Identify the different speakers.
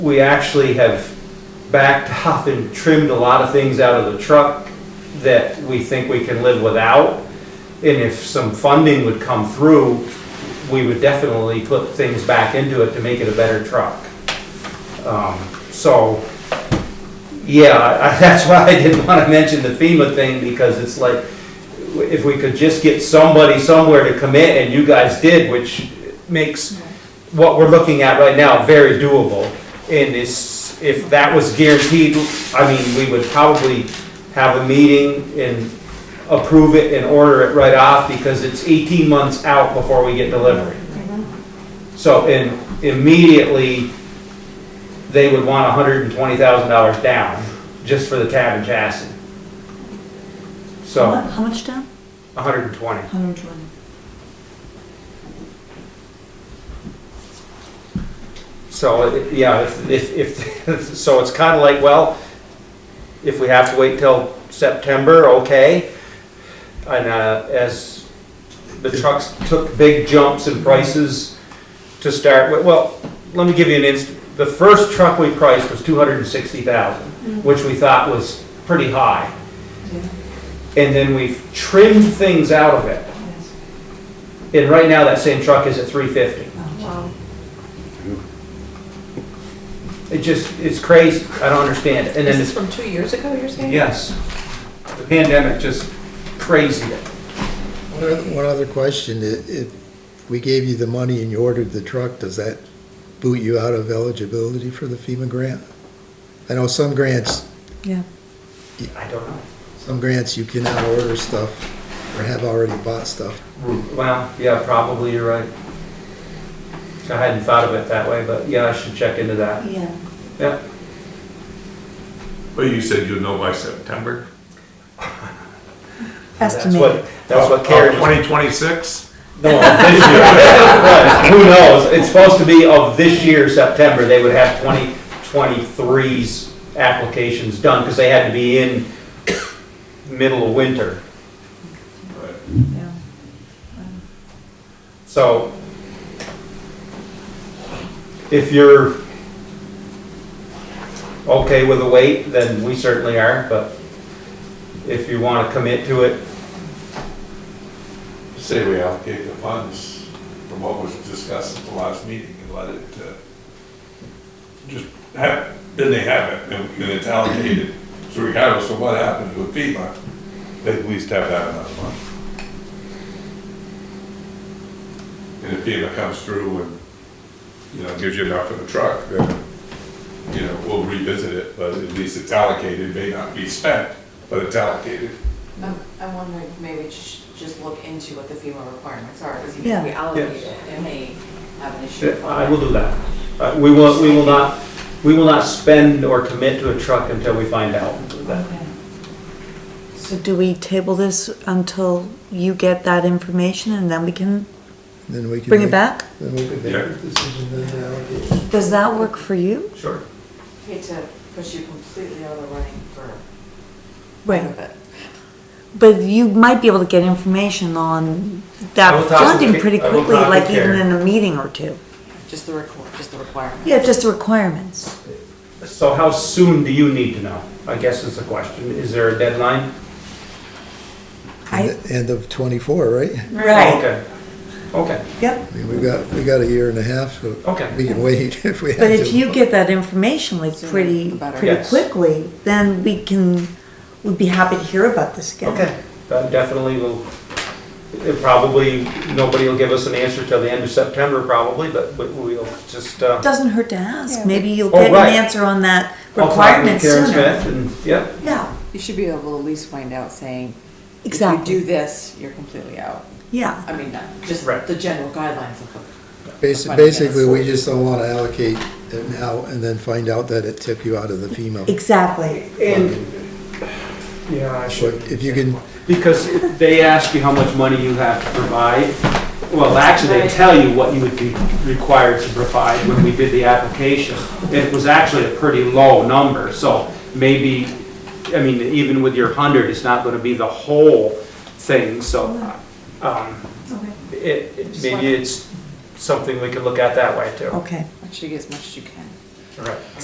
Speaker 1: we actually have backed off and trimmed a lot of things out of the truck that we think we can live without. And if some funding would come through, we would definitely put things back into it to make it a better truck. Um, So, yeah, I- that's why I didn't want to mention the FEMA thing, because it's like, if we could just get somebody somewhere to commit, and you guys did, which makes what we're looking at right now very doable. And is, if that was guaranteed, I mean, we would probably have a meeting and approve it and order it right off because it's 18 months out before we get delivery. So, and immediately, they would want $120,000 down just for the cab and chassis. So,
Speaker 2: How much down?
Speaker 1: 120.
Speaker 2: Hundred and twenty.
Speaker 1: So, it- yeah, if- if, if, so it's kind of like, well, if we have to wait till September, okay. And uh, as the trucks took big jumps in prices to start with, well, let me give you an inst, the first truck we priced was two hundred and sixty thousand, which we thought was pretty high. And then we've trimmed things out of it. And right now, that same truck is at three fifty. It just, it's crazy. I don't understand it. And
Speaker 3: This
Speaker 1: then
Speaker 3: is
Speaker 1: it's,
Speaker 3: from two years ago, you're saying?
Speaker 1: yes, the pandemic just crazy it.
Speaker 4: One other- one other question, I- if we gave you the money and you ordered the truck, does that boot you out of eligibility for the FEMA grant? I know some grants,
Speaker 2: Yeah.
Speaker 1: I don't know.
Speaker 4: some grants you cannot order stuff or have already bought stuff.
Speaker 1: Well, yeah, probably you're right. I hadn't thought of it that way, but yeah, I should check into that.
Speaker 2: Yeah.
Speaker 1: Yeah,
Speaker 5: Well, you said you'll know by September.
Speaker 1: that's what, that's what Karen was.
Speaker 5: Twenty twenty-six?
Speaker 1: No, of this year. But Who knows? It's supposed to be of this year, September, they would have 2023's applications done because they had to be in middle of winter.
Speaker 2: Yeah.
Speaker 1: So if you're okay with the wait, then we certainly are, but if you want to commit to it,
Speaker 5: Say we allocate the funds from what was discussed at the last meeting and let it, uh, just have, then they have it and and it's allocated. So regardless of what happens with FEMA, they at least have that amount of money. And if FEMA comes through and, you know, gives you enough for the truck, then, you know, we'll revisit it, but at least it's allocated, may not be spent, but it's allocated.
Speaker 6: I'm, I'm wondering if maybe we sh- just look into what the FEMA requirements are, because even
Speaker 2: Yeah.
Speaker 6: if we allocate
Speaker 1: Yes.
Speaker 6: it, it may have an issue.
Speaker 1: I will do that. Uh, We will, we will not, we will not spend or commit to a truck until we find out.
Speaker 2: So do we table this until you get that information and then we can
Speaker 4: Then we can.
Speaker 2: bring it
Speaker 4: make-
Speaker 2: back?
Speaker 4: Then we can make
Speaker 5: Yeah.
Speaker 4: a decision then to allocate.
Speaker 2: Does that work for you?
Speaker 1: Sure.
Speaker 6: Hate to push you completely out of the running for
Speaker 2: Right.
Speaker 6: part of it.
Speaker 2: But you might be able to get information on
Speaker 1: I will
Speaker 2: that
Speaker 1: talk to
Speaker 2: funding
Speaker 1: Ka-
Speaker 2: pretty
Speaker 1: I will
Speaker 2: quickly,
Speaker 1: talk to
Speaker 2: like even
Speaker 1: Karen.
Speaker 2: in a meeting or two.
Speaker 6: Just the requ- just the requirement.
Speaker 2: Yeah, just the requirements.
Speaker 1: So how soon do you need to know? I guess is the question. Is there a deadline?
Speaker 2: I,
Speaker 4: End of twenty-four, right?
Speaker 2: right,
Speaker 1: Okay. Okay,
Speaker 2: yep.
Speaker 4: I mean, we got, we got a year and a half, so
Speaker 1: okay.
Speaker 4: we can wait if we have to.
Speaker 2: But if you get that information like
Speaker 6: Sooner
Speaker 2: pretty,
Speaker 6: the better.
Speaker 2: pretty
Speaker 1: Yes.
Speaker 2: quickly, then we can, we'd be happy to hear about this again.
Speaker 1: Okay, that definitely will, it probably, nobody will give us an answer till the end of September probably, but but we'll just, uh.
Speaker 2: Doesn't hurt to ask.
Speaker 3: Yeah.
Speaker 2: Maybe you'll
Speaker 1: Oh,
Speaker 2: get an
Speaker 1: right.
Speaker 2: answer on that
Speaker 1: I'll talk with
Speaker 2: requirement sooner.
Speaker 1: Karen Smith and, yeah,
Speaker 2: Yeah,
Speaker 6: You should be able to at least find out saying, if you
Speaker 2: exactly.
Speaker 6: do this, you're completely out.
Speaker 2: Yeah,
Speaker 6: I mean, not, just
Speaker 1: Right.
Speaker 6: the general guidelines of the.
Speaker 4: Basi- Basically, we just don't want to allocate it now and then find out that it tipped you out of the FEMA.
Speaker 2: exactly.
Speaker 1: and, yeah, I
Speaker 4: But
Speaker 1: should.
Speaker 4: if you can,
Speaker 1: Because they ask you how much money you have to provide. Well, actually, they tell you what you would be required to provide when we did the application. It was actually a pretty low number, so maybe, I mean, even with your hundred, it's not gonna be the whole thing, so, um, it, it- maybe it's something we could look at that way too.
Speaker 2: Okay,
Speaker 6: Make sure you get as much as you can.
Speaker 1: Right.